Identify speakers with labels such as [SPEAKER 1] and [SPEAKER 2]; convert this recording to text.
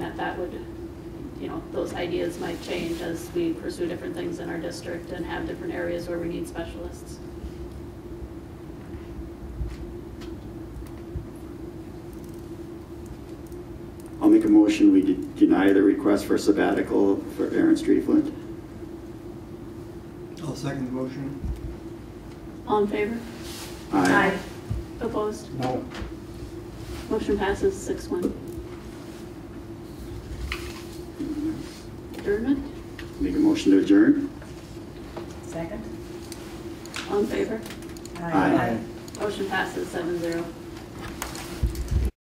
[SPEAKER 1] would, you know, those ideas might change as we pursue different things in our district and have different areas where we need specialists.
[SPEAKER 2] I'll make a motion, we de- deny the request for sabbatical for Aaron Streetfoot.
[SPEAKER 3] I'll second the motion.
[SPEAKER 1] All in favor?
[SPEAKER 2] Aye.
[SPEAKER 1] Opposed?
[SPEAKER 3] No.
[SPEAKER 1] Motion passes six one. Adjournment?
[SPEAKER 2] Make a motion to adjourn.
[SPEAKER 4] Second?
[SPEAKER 1] All in favor?
[SPEAKER 2] Aye.
[SPEAKER 1] Motion passes seven zero.